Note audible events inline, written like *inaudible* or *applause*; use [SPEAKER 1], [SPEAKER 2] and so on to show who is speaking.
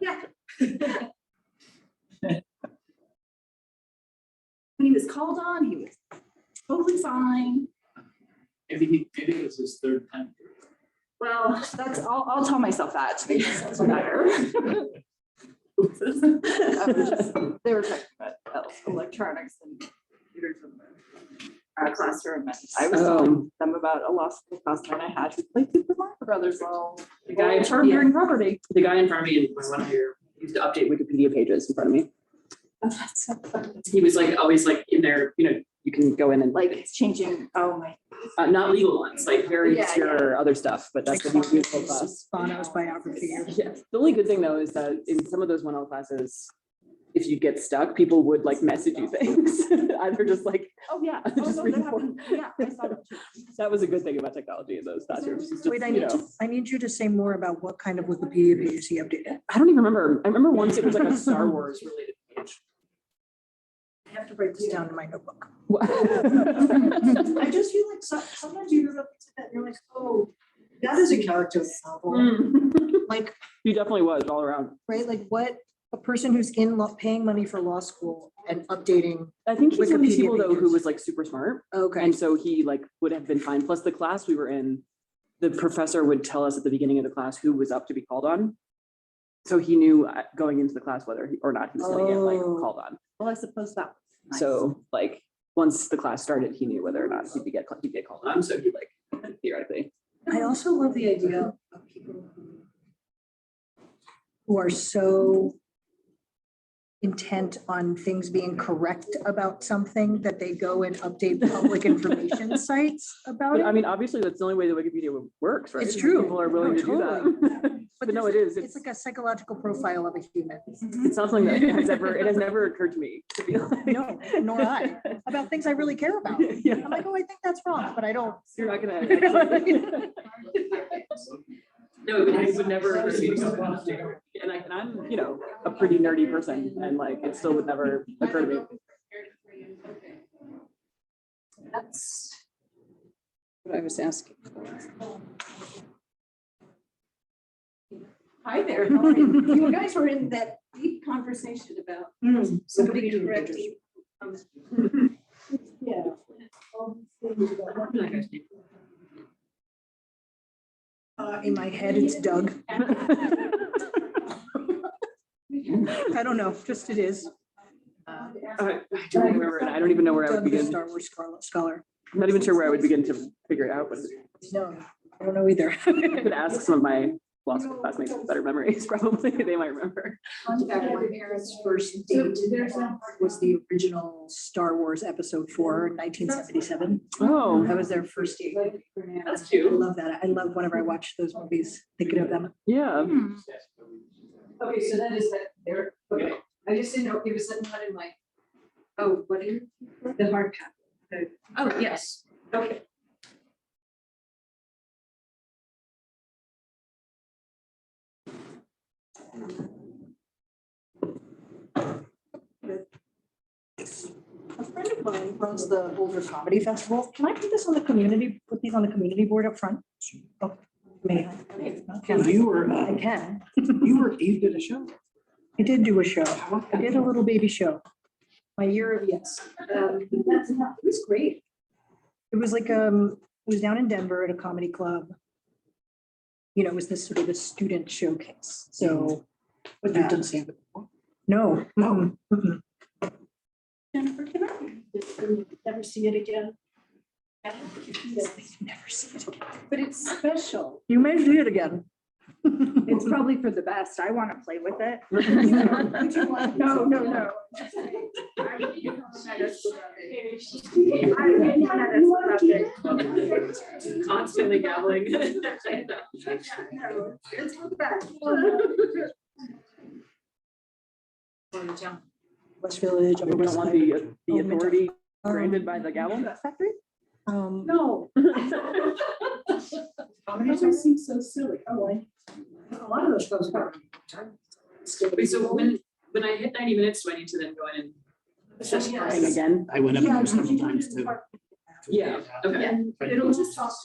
[SPEAKER 1] Yeah. When he was called on, he was totally fine.
[SPEAKER 2] Maybe he did it as his third time.
[SPEAKER 1] Well, that's, I'll, I'll tell myself that to make myself feel *laughs* better. They were talking about el- electronics and computers in the- our classroom. and I was telling them about a law school classmate I had who played Super Mario Brothers while
[SPEAKER 3] The guy,
[SPEAKER 1] term
[SPEAKER 3] yeah,
[SPEAKER 1] during *laughs* property.
[SPEAKER 3] the guy in front of me, in my one of your, used to update Wikipedia pages in front of me.
[SPEAKER 1] That's so fun.
[SPEAKER 3] He was like, always like in there, you know, you can go in and like,
[SPEAKER 1] Like it's changing, oh my.
[SPEAKER 3] uh, not legal ones, like very
[SPEAKER 1] Yeah,
[SPEAKER 3] obscure other stuff, but that's what he was useful for us.
[SPEAKER 4] Bono's biography.
[SPEAKER 3] Yeah, the only good thing though is that in some of those one L classes, if you get stuck, people would like message you *laughs* things. Either just like,
[SPEAKER 1] Oh, yeah.
[SPEAKER 3] I
[SPEAKER 1] Oh,
[SPEAKER 3] *laughs* just
[SPEAKER 1] no,
[SPEAKER 3] read
[SPEAKER 1] that
[SPEAKER 3] more.
[SPEAKER 1] happened. Yeah, I saw that too.
[SPEAKER 3] that was a good thing about technology in those classrooms. is just,
[SPEAKER 4] Wait, I
[SPEAKER 3] you
[SPEAKER 4] need
[SPEAKER 3] know,
[SPEAKER 4] to, I need you to say more about what kind of Wikipedia pages he updated.
[SPEAKER 3] I don't even remember. I remember once it was like a Star Wars related
[SPEAKER 4] *laughs*
[SPEAKER 3] page. *laughs*
[SPEAKER 4] I have to write this down in my notebook.
[SPEAKER 5] I just feel like so- sometimes you hear about things like that, and you're like, oh, that is a character in a novel.
[SPEAKER 4] Mm-hmm. Mm. Like,
[SPEAKER 3] He definitely was all around.
[SPEAKER 4] right, like what, a person who's in, law- paying money for law school and updating.
[SPEAKER 3] I think he's one of these
[SPEAKER 4] Wikipedia
[SPEAKER 3] people though who
[SPEAKER 4] pages.
[SPEAKER 3] was like super smart.
[SPEAKER 4] Okay.
[SPEAKER 3] And so he like would have been fine. Plus the class we were in, the professor would tell us at the beginning of the class who was up to be called on. So he knew uh, going into the class whether he- or not he was going to get like
[SPEAKER 4] Oh.
[SPEAKER 3] called on.
[SPEAKER 1] Well, I suppose that. was nice.
[SPEAKER 3] So like, once the class started, he knew whether or not he'd be get, he'd get called on. So he like *laughs* theoretically.
[SPEAKER 4] I also love the idea of people who are so intent on things being correct about something that they go and update public
[SPEAKER 5] *laughs*
[SPEAKER 4] information sites about
[SPEAKER 3] But I
[SPEAKER 4] it.
[SPEAKER 3] mean, obviously that's the only way that Wikipedia wo- works, right?
[SPEAKER 4] It's
[SPEAKER 3] Is
[SPEAKER 4] true.
[SPEAKER 3] People are willing
[SPEAKER 4] No,
[SPEAKER 3] to do *laughs* that. But no, it
[SPEAKER 4] there's-
[SPEAKER 3] is.
[SPEAKER 4] It's like a psychological profile of a human.
[SPEAKER 3] It's not
[SPEAKER 4] *laughs*
[SPEAKER 3] something that has ever, it has never occurred to me to be like.
[SPEAKER 4] No, nor I,
[SPEAKER 3] *laughs*
[SPEAKER 4] about things I really care about.
[SPEAKER 3] Yeah.
[SPEAKER 4] I'm like, oh, I think that's wrong, but I don't.
[SPEAKER 6] *laughs*
[SPEAKER 3] You're not gonna.
[SPEAKER 4] You know what I
[SPEAKER 3] actually- *laughs* No, but I would never. ever see it go up. And I, and I'm, you know, a pretty nerdy person and like, it still would never occur to me.
[SPEAKER 1] That's.
[SPEAKER 6] what I was
[SPEAKER 3] *laughs*
[SPEAKER 6] asking.
[SPEAKER 1] Hi there. how are *laughs* You You guys were in that deep conversation about Mm, somebody correcting. um, *laughs* Yeah.
[SPEAKER 4] Uh, In my head, it's Doug. I don't know, just it is.
[SPEAKER 3] I I don't remember, and I don't even know where I would
[SPEAKER 4] Doug, the
[SPEAKER 3] begin.
[SPEAKER 4] Star Wars scholar- scholar.
[SPEAKER 3] I'm not even sure where I would begin to figure it out, but
[SPEAKER 4] No, I don't know either.
[SPEAKER 3] I could ask some of my law school classmates with better memories, *laughs* probably, they might remember.
[SPEAKER 4] That my parents' first date was the original Star Wars Episode Four, 1977.
[SPEAKER 3] Oh,
[SPEAKER 4] That was their first date.
[SPEAKER 3] that's
[SPEAKER 4] I
[SPEAKER 3] cute.
[SPEAKER 4] love that. I love whenever I watch those movies, thinking of them.
[SPEAKER 6] *laughs*
[SPEAKER 3] Yeah, *laughs*
[SPEAKER 5] Okay, so that is that there, okay, I just didn't know, it was sitting in my, oh, what is the hard path?
[SPEAKER 1] Oh, yes.
[SPEAKER 5] Okay.
[SPEAKER 4] A friend of mine runs the Boulder Comedy Festival. Can I put this on the community, put these on the community board up front? Oh, May I? Can I?
[SPEAKER 2] You were,
[SPEAKER 4] I can.
[SPEAKER 2] you were, you did a show.
[SPEAKER 4] I did do a show. I did a little baby show. My year of yes. Um, that's not- It was great. It was like, um, it was down in Denver at a comedy club. You know, it was this sort of a student showcase, so.
[SPEAKER 5] But
[SPEAKER 4] you didn't
[SPEAKER 5] see it.
[SPEAKER 4] No, um, no. mm-mm.
[SPEAKER 5] Jennifer, can I never see it again?
[SPEAKER 4] Never see it. again.
[SPEAKER 1] But it's special.
[SPEAKER 4] You may see it again. *laughs*
[SPEAKER 1] It's *laughs* probably for the best. I want to play with it.
[SPEAKER 4] No, no, no.
[SPEAKER 3] constantly gabbling.
[SPEAKER 4] *laughs* West Village.
[SPEAKER 3] We don't want the, the authority granted by the gavel.
[SPEAKER 4] Um,
[SPEAKER 1] No.
[SPEAKER 5] Comedy seems so silly, oh, I. A lot of those shows are.
[SPEAKER 3] Wait, so when, when I hit ninety minutes, do I need to then go in and?
[SPEAKER 5] Yes.
[SPEAKER 3] Again?
[SPEAKER 2] I went up there several times too.
[SPEAKER 3] Yeah, okay.
[SPEAKER 5] And it'll just toss